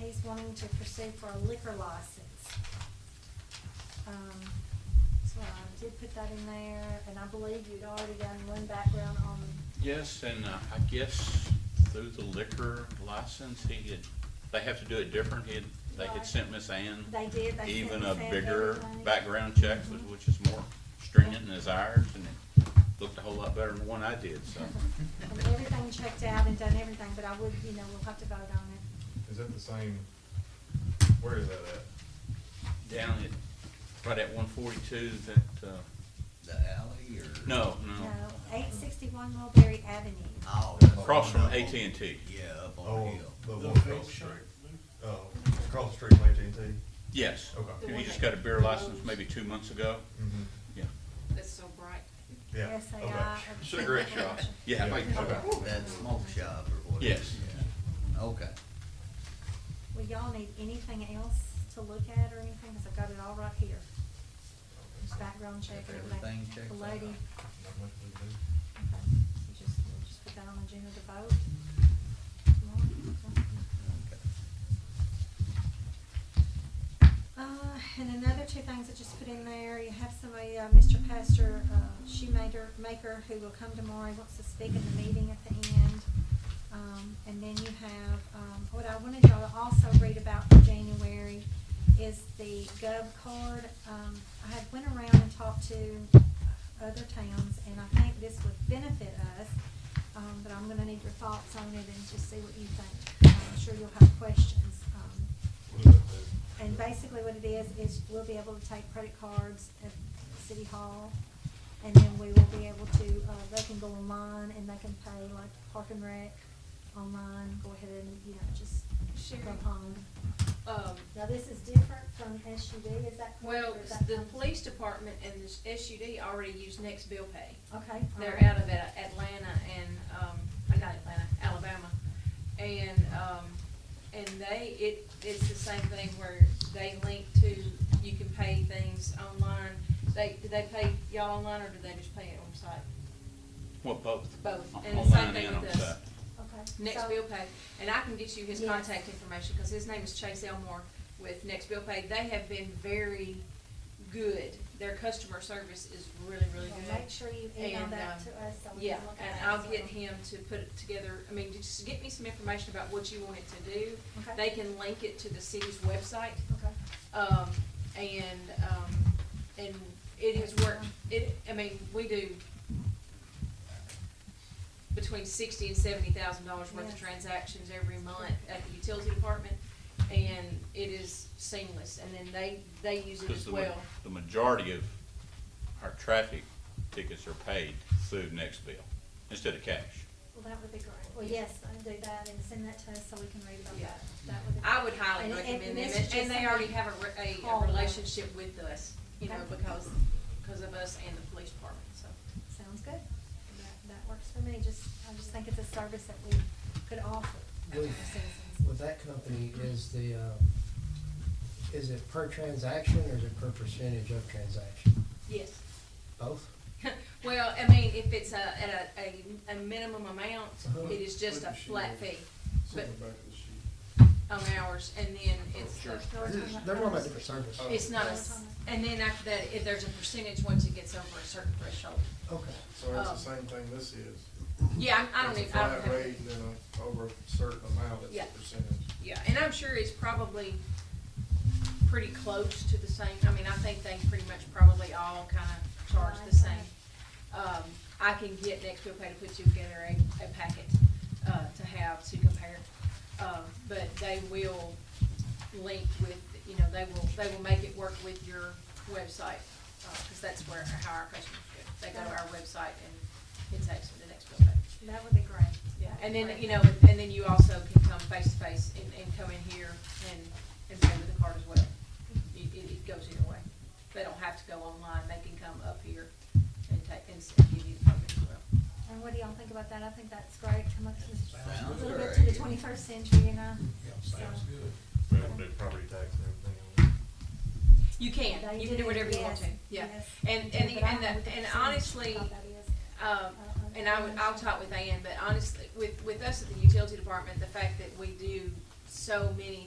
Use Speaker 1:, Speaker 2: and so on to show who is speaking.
Speaker 1: he's wanting to pursue for a liquor license. Um, so I did put that in there, and I believe you'd already done one background on,
Speaker 2: Yes, and uh, I guess through the liquor license, he had, they have to do it different. He had, they had
Speaker 1: Right.
Speaker 2: sent Miss Ann
Speaker 1: they did, they sent
Speaker 2: even
Speaker 1: us
Speaker 2: a
Speaker 1: that
Speaker 2: bigger
Speaker 1: everything.
Speaker 2: background check, which-
Speaker 1: Mhm.
Speaker 2: which is more stringent and is ours, and it looked a whole lot better than the one I did, so.
Speaker 1: And everything checked out and done everything, but I would, you know, we'll have to vote on it.
Speaker 3: Is that the same, where is that at?
Speaker 2: Down at, right at one forty-two, that, uh,
Speaker 4: The alley or?
Speaker 2: no,
Speaker 1: No,
Speaker 2: no,
Speaker 1: eight sixty-one Mulberry Avenue.
Speaker 4: Oh, that's
Speaker 2: across from
Speaker 4: one up on-
Speaker 2: AT&T.
Speaker 4: Yeah, up on the
Speaker 3: Oh,
Speaker 4: hill.
Speaker 3: the
Speaker 5: The
Speaker 3: one
Speaker 5: vape
Speaker 3: across the
Speaker 5: shop,
Speaker 3: street.
Speaker 5: Luke?
Speaker 3: Oh, across the street from
Speaker 5: E
Speaker 3: AT&T?
Speaker 2: Yes.
Speaker 3: Okay.
Speaker 2: You just got a beer license maybe two months ago.
Speaker 3: Mhm.
Speaker 2: Yeah.
Speaker 6: That's so bright.
Speaker 3: Yeah.
Speaker 1: Yes, uh, they
Speaker 3: okay.
Speaker 1: are.
Speaker 5: Cigarette shop.
Speaker 2: Yeah.
Speaker 3: Yeah.
Speaker 2: like-
Speaker 3: Okay.
Speaker 4: That smoke shop or whatever.
Speaker 2: Yes.
Speaker 4: Yeah. Okay.
Speaker 1: Well, y'all need anything else to look at or anything, because I've got it all right here. Background check.
Speaker 4: If
Speaker 1: everything.
Speaker 4: everything checks
Speaker 1: The lady.
Speaker 4: out.
Speaker 3: Not much we can do.
Speaker 1: Okay. You just, we'll just put that on the agenda to vote. Tomorrow. Uh, and another two things I just put in there, you have somebody, uh, Mr. Pastor, uh, Shoemaker, Maker, who will come tomorrow, he wants to speak at the meeting at the end. Um, and then you have, um, what I wanted y'all to also read about for January is the gov card. Um, I had went around and talked to other towns, and I think this would benefit us, um, but I'm gonna need your thoughts on it and just see what you think. I'm sure you'll have questions, um,
Speaker 3: What does that do?
Speaker 1: and basically what it is, is we'll be able to take credit cards at City Hall, and then we will be able to, uh, they can go online and they can pay like Park and Rec online, go ahead and, you know, just
Speaker 6: Sherry.
Speaker 1: go home.
Speaker 6: Um,
Speaker 1: Now, this is different from SUV, is that correct?
Speaker 6: well,
Speaker 1: or is that
Speaker 6: the
Speaker 1: kind of-
Speaker 6: police department and the SUD already use Next Bill Pay.
Speaker 1: Okay. all
Speaker 6: They're
Speaker 1: right.
Speaker 6: out of At- Atlanta and, um, uh, not Atlanta, Alabama. And, um, and they, it, it's the same thing where they link to, you can pay things online. They, do they pay y'all online or do they just pay it on site?
Speaker 2: Well, both.
Speaker 6: Both.
Speaker 2: O-
Speaker 6: And the same
Speaker 2: online
Speaker 6: thing
Speaker 2: and
Speaker 6: with
Speaker 2: on
Speaker 6: us.
Speaker 2: site.
Speaker 1: Okay.
Speaker 6: Next
Speaker 1: so-
Speaker 6: Bill Pay, and I can get you his
Speaker 1: Yes.
Speaker 6: contact information, because his name is Chase Elmore with Next Bill Pay. They have been very good. Their customer service is really, really
Speaker 1: Well,
Speaker 6: good.
Speaker 1: Make sure you email
Speaker 6: And,
Speaker 1: that
Speaker 6: um,
Speaker 1: to us so we
Speaker 6: Yeah,
Speaker 1: can look at it.
Speaker 6: and I'll get him to put it together, I mean, just get me some information about what you want it to do.
Speaker 1: Okay.
Speaker 6: They can link it to the city's website.
Speaker 1: Okay.
Speaker 6: Um, and, um, and it has worked, it, I mean, we do between sixty and seventy thousand dollars worth
Speaker 1: Yes.
Speaker 6: of transactions every month at the utility department, and it is seamless, and then they, they use it
Speaker 2: Because
Speaker 6: as
Speaker 2: the, ma-
Speaker 6: well.
Speaker 2: the majority of our traffic tickets are paid through next bill instead of cash.
Speaker 1: Well, that would be great. Well, yes, I'll do that and send that to us so we can read about
Speaker 6: Yeah.
Speaker 1: that. That would be.
Speaker 6: I would highly
Speaker 1: And- and
Speaker 6: recommend them,
Speaker 1: this is
Speaker 6: and,
Speaker 1: just
Speaker 6: and they
Speaker 1: something-
Speaker 6: already have a, re- a,
Speaker 1: All
Speaker 6: a
Speaker 1: of them.
Speaker 6: relationship with us, you know,
Speaker 1: Okay.
Speaker 6: because, because of us and the police department, so.
Speaker 1: Sounds good. That, that works for me. Just, I just think it's a service that we could offer to our
Speaker 7: With,
Speaker 1: citizens.
Speaker 7: with that company, is the, uh, is it per transaction or is it per percentage of transaction?
Speaker 6: Yes.
Speaker 7: Both?
Speaker 6: Well, I mean, if it's a, at a, a, a minimum amount,
Speaker 7: Uh-huh.
Speaker 6: it is just a
Speaker 5: What does she
Speaker 6: flat
Speaker 5: make?
Speaker 6: fee
Speaker 5: Send
Speaker 6: But-
Speaker 5: it back to the sheet.
Speaker 6: on ours, and then it's,
Speaker 2: Sure.
Speaker 1: They're all talking about
Speaker 7: They're on a
Speaker 1: ours.
Speaker 7: different service.
Speaker 6: it's not a, s- and then after that, if there's a percentage, once it gets over a certain threshold.
Speaker 7: Okay.
Speaker 5: So that's
Speaker 6: Um,
Speaker 5: the same thing this is.
Speaker 6: Yeah, I, I don't
Speaker 5: It's
Speaker 6: even,
Speaker 5: a
Speaker 6: I don't
Speaker 5: flat
Speaker 6: have.
Speaker 5: rate and then a- over a certain amount, it's
Speaker 6: Yeah.
Speaker 5: a percentage.
Speaker 6: Yeah, and I'm sure it's probably pretty close to the same, I mean, I think they pretty much probably all kind of charge the same. Um, I can get next bill pay to put you together a, a packet, uh, to have to compare. Uh, but they will link with, you know, they will, they will make it work with your website, uh, cause that's where, how our customers go. They go to our website and it takes them to next bill pay.
Speaker 1: That would be great.
Speaker 6: Yeah,
Speaker 1: That'd
Speaker 6: and
Speaker 1: be
Speaker 6: then,
Speaker 1: great.
Speaker 6: you know, and- and then you also can come face to face and, and come in here and, and pay with a card as well. It,
Speaker 1: Mm-hmm.
Speaker 6: it, it goes either way. They don't have to go online, they can come up here and take, and s- give you the card as well.
Speaker 1: And what do y'all think about that? I think that's great. Come up to the- a
Speaker 4: Sounds
Speaker 1: little bit to the
Speaker 4: great.
Speaker 1: twenty-first century, you know?
Speaker 4: sounds
Speaker 1: So-
Speaker 4: good.
Speaker 3: We have to do property tax and everything.
Speaker 6: You can,
Speaker 1: They
Speaker 6: you can do
Speaker 1: it,
Speaker 6: whatever you want
Speaker 1: yes,
Speaker 6: to, yeah.
Speaker 1: yes.
Speaker 6: And, and,
Speaker 1: But I
Speaker 6: and,
Speaker 1: don't know what the
Speaker 6: the- and
Speaker 1: percentage
Speaker 6: honestly,
Speaker 1: of that is.
Speaker 6: Um, and I would, I'll talk with Ann, but honestly, with, with us at the utility department, the fact that we do so many